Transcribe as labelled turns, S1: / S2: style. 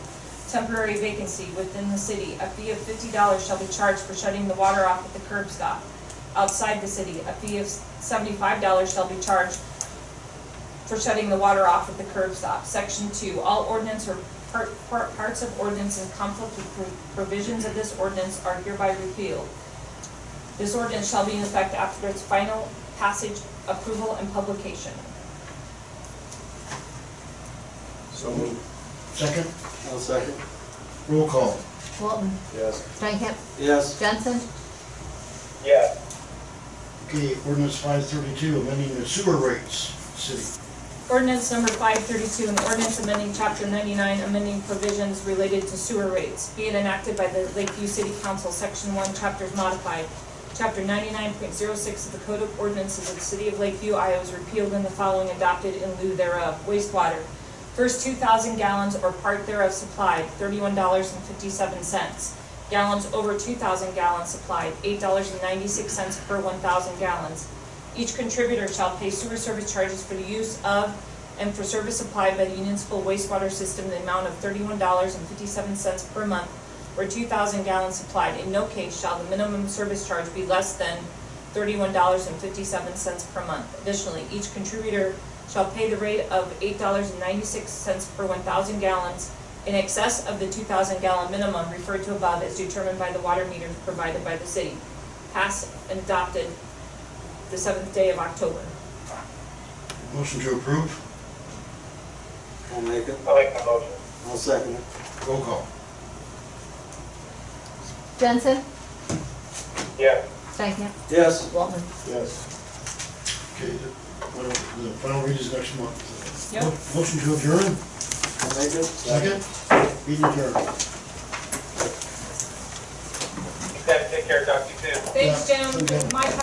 S1: temporary vacancy within the city, a fee of fifty dollars shall be charged for shutting the water off at the curb stop. Outside the city, a fee of seventy-five dollars shall be charged for shutting the water off at the curb stop. Section two, all ordinance or part- part- parts of ordinance in conflict with pro- provisions of this ordinance are hereby repealed. This ordinance shall be in effect after its final passage, approval, and publication.
S2: So moved.
S3: Second,
S2: I'll second.
S3: roll call.
S4: Walton,
S2: Yes.
S4: Stankham,
S2: Yes.
S4: Johnson,
S5: yes,
S3: Okay, ordinance five thirty-two, amending the sewer rates, city.
S1: Ordinance number five thirty-two, an ordinance amending chapter ninety-nine, amending provisions related to sewer rates, being enacted by the Lakeview City Council, section one, chapters modified. Chapter ninety-nine point zero six of the Code of Ordinances of the City of Lakeview, Iowa is repealed and the following adopted in lieu thereof, wastewater. First two thousand gallons or part thereof supplied, thirty-one dollars and fifty-seven cents. Gallons over two thousand gallons supplied, eight dollars and ninety-six cents per one thousand gallons. Each contributor shall pay sewer service charges for the use of and for service supplied by the municipal wastewater system in the amount of thirty-one dollars and fifty-seven cents per month or two thousand gallons supplied. In no case shall the minimum service charge be less than thirty-one dollars and fifty-seven cents per month. Additionally, each contributor shall pay the rate of eight dollars and ninety-six cents per one thousand gallons in excess of the two thousand gallon minimum referred to above as determined by the water meters provided by the city. Passed and adopted the seventh day of October.
S3: Motion to approve,
S2: I'll make it.
S5: I'll make the motion,
S2: I'll second it.
S3: roll call.
S4: Johnson,
S5: yes,
S4: Stankham,
S2: Yes.
S4: Walton.
S2: Yes.
S3: Okay, the final- the final read is next month.
S1: Yep.
S3: Mo- Motion to adjourn,
S2: I'll make it.
S3: second, meeting adjourned.
S5: you guys take care, talk to you soon.
S1: Thanks,
S3: Yeah, okay.
S1: Jim. My